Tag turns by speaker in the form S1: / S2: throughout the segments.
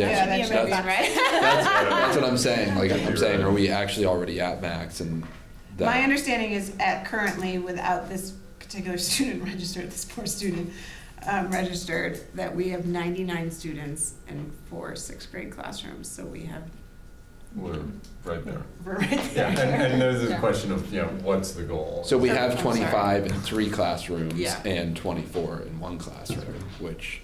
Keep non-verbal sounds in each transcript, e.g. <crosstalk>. S1: Yeah,
S2: It should be a
S1: that's-
S2: marathon, right?
S1: That's, that's what I'm saying. Like I'm saying, are we actually already at max? And that,
S3: My understanding is at currently, without this particular <laughs> student registered, this poor student um, registered, that we have 99 students in four sixth grade classrooms, so we have, <laughs>
S4: We're right there.
S3: we're right
S4: Yeah,
S3: there.
S4: and, and there's a question of, you know, what's the goal?
S1: so we
S3: So-
S1: have
S3: I'm
S1: 25 in three classrooms
S3: Yeah.
S1: and 24 in one classroom, which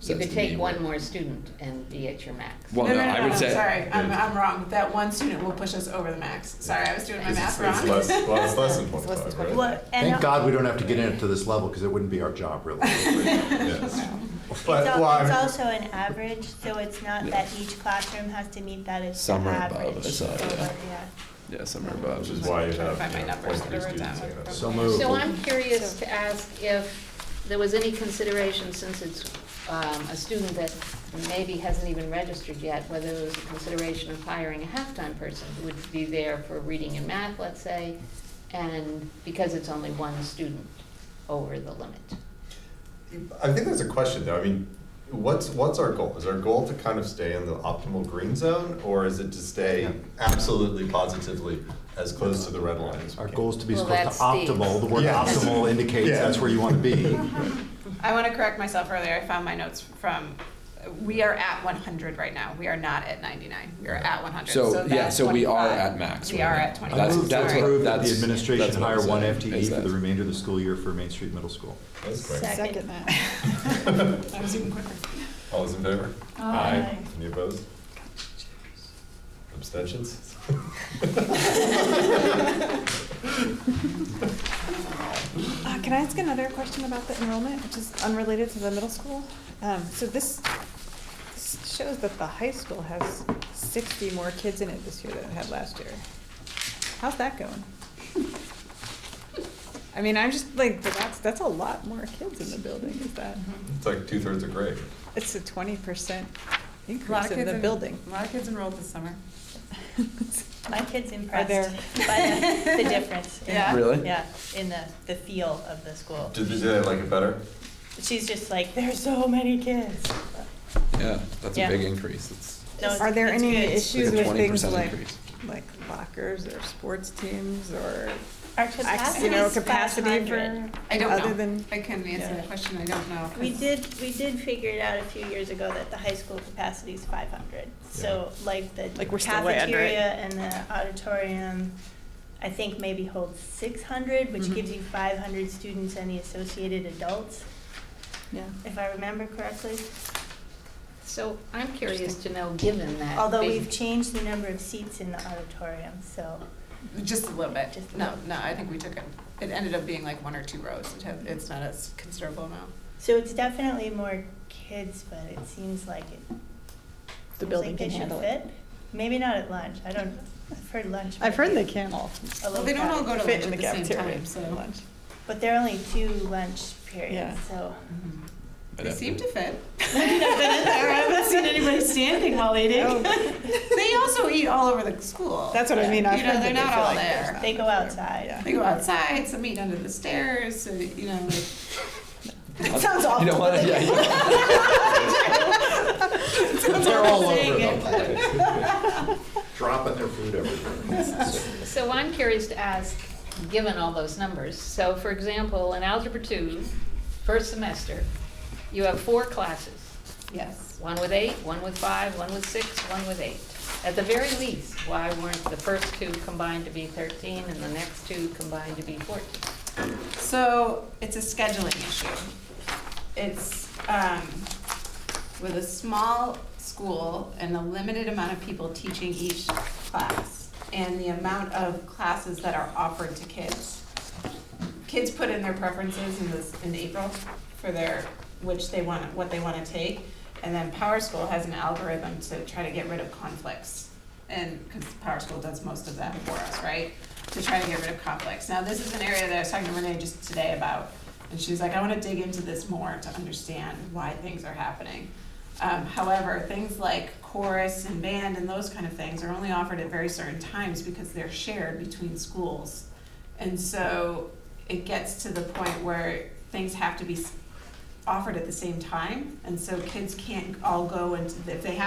S1: says
S5: You
S1: to
S5: could
S1: me
S5: take one
S1: we're-
S5: more student and be at your max.
S1: Well,
S3: no,
S1: no,
S3: no, no,
S1: I would
S3: no,
S1: say
S3: sorry, I'm, I'm wrong. That one student will push us over the max. Sorry, I was doing my
S4: Because
S3: math
S4: it's- it's
S3: wrong. <laughs>
S4: less- Well, it's less than
S5: It's less than
S4: twenty-five, right?
S2: Well, and
S6: Thank God we don't have to get into this level because it wouldn't be our
S1: <laughs>
S6: job, really.
S4: Yes.
S2: It's
S4: <laughs> But, well,
S2: al-
S4: I
S2: it's
S4: mean-
S2: also an average, so it's not that each classroom has to meet that, it's the
S1: Some are above,
S2: average.
S1: I saw, yeah.
S2: over- yeah.
S1: yeah, somewhere above.
S4: Which is why you
S3: Trying to find
S4: have,
S3: my
S4: you know,
S3: numbers
S4: point three
S3: that I wrote
S4: students
S3: down.
S4: in it.
S6: So moved.
S5: So I'm curious to ask if there was any consideration, since it's um, a student that maybe hasn't even registered yet, whether there was a consideration of hiring a halftime person who would be there for reading and math, let's say, and because it's only one student over the limit.
S4: I think that's a question though, I mean, what's, what's our goal? Is our goal to kind of stay in the optimal green zone, or is it to stay absolutely positively as close to the red line as we
S6: Our
S4: can?
S6: goal is to be as
S5: Well,
S6: close to
S5: that's Steve's.
S6: optimal. The word
S4: Yeah. <laughs>
S6: optimal indicates
S4: Yeah.
S6: that's where
S1: <laughs>
S6: you want to be.
S3: I want to correct myself earlier. I found my notes from, we are at 100 right now. We are not at 99. We are at 100.
S1: So, yeah,
S3: that's
S1: so we are
S3: 25.
S1: at max.
S3: We
S1: right
S3: are
S1: now.
S3: at 25.
S6: I
S1: That's-
S6: move to
S1: that's what-
S6: approve that
S1: that's-
S6: the administration
S1: that's what I'm
S6: hire one
S1: saying, is
S6: FTE for
S1: that-
S6: the remainder of the school year for Main Street
S1: <laughs>
S6: Middle School.
S4: <laughs> That's great.
S2: Second.
S3: That was even quicker.
S4: All those in favor?
S2: Aye.
S4: Any opposed? Abstentions?
S7: Uh, Can I ask another question about the enrollment, which is unrelated to the middle school? Um, So this this shows that the high school has 60 more kids in it this year than it had last year. How's that going? I mean, I'm just like, but that's, that's a lot more kids in the building, is that?
S4: It's like two-thirds of grade.
S7: It's a 20%
S3: A lot
S7: increase
S3: of
S7: in
S3: kids
S7: the
S3: en-
S7: building. <laughs>
S3: A lot of kids enrolled this summer.
S2: My kid's impressed
S7: there-
S2: by the, the difference. in-
S3: Yeah?
S1: Really?
S2: Yeah, in the, the feel of the school.
S4: Did did they like it better?
S2: She's just like, there's so many kids.
S1: Yeah, that's
S2: Yeah.
S1: a big increase. It's
S2: No, it's-
S7: Are there
S2: it's
S7: any
S2: good.
S7: issues
S1: like a
S7: with
S1: 20%
S7: things like,
S1: increase.
S7: like lockers or sports teams or
S2: Our
S7: Ac- you know,
S2: capacity's
S7: capacity
S2: 500.
S7: for,
S3: I don't
S7: other
S3: know.
S7: than,
S3: I can answer the
S7: Yeah.
S3: question, I don't know. 'cause-
S2: We did, we did figure it out a few years ago that the high school capacity is five hundred. So like the
S7: Like, we're still way under it.
S2: cafeteria and the auditorium, I think maybe holds six hundred, which
S7: Mm-hmm.
S3: Mhm.
S2: gives you five hundred students and the associated adults,
S7: yeah.
S2: if I remember correctly.
S5: So I'm curious to know, given that.
S2: Although
S5: big-
S2: we've changed the number of seats in the auditorium, so
S3: Just a little bit.
S2: Just a
S3: No,
S2: little.
S3: no, I think we took it, it ended up being like one or two rows. It had, it's not a s- considerable amount.
S2: so it's definitely more kids, but it seems like it. seems like
S7: building can
S2: they should
S7: handle it.
S2: fit. Maybe not at lunch. I don't. I've heard lunch.
S7: I've heard
S2: might
S7: they
S2: be
S7: can
S2: a
S7: all
S3: Well,
S2: little
S3: they don't all
S2: crowded.
S3: go to
S7: fit
S3: lunch
S7: in the
S3: at the same
S7: cafeteria
S3: time,
S7: for
S3: so.
S7: lunch.
S2: But there are only two lunch periods,
S7: Yeah.
S2: so. <laughs>
S1: Mm-hmm.
S3: They seem to fit.
S2: I haven't seen anybody standing while eating.
S3: They also eat all over the school.
S7: That's what I mean, I've
S3: You know,
S7: heard that
S3: they're
S7: they
S3: not
S7: feel
S3: all
S7: like there's
S3: there.
S7: not
S2: They go
S7: enough room.
S2: outside.
S7: Yeah.
S3: They go outside, some eat under the stairs, so, you know.
S1: I'll-
S3: It <laughs> sounds awful.
S1: You don't want to, yeah, you don't-
S6: They're all over
S3: saying
S6: them.
S1: <laughs>
S6: Dropping their food everywhere.
S5: So I'm curious to ask, given all those numbers, so for example, in Algebra 2, first semester, you have four classes,
S3: Yes.
S5: one with eight, one with five, one with six, one with eight. At the very least, why weren't the first two combined to be 13 and the next two combined to be 14?
S3: So it's a scheduling issue. It's, um, with a small school and a limited amount of people teaching each class and the amount of classes that are offered to kids. Kids put in their preferences in this, in April for their, which they want, what they wanna take. And then Power School has an algorithm to try to get rid of conflicts. And, cause Power School does most of that for us, right? to try to get rid of conflicts. Now, this is an area that I was talking to Renee just today about, and she was like, I want to dig into this more to understand why things are happening. Um, however, things like chorus and band and those kind of things are only offered at very certain times because they're shared between schools. And so it gets to the point where things have to be s- offered at the same time, and so kids can't all go and, if they have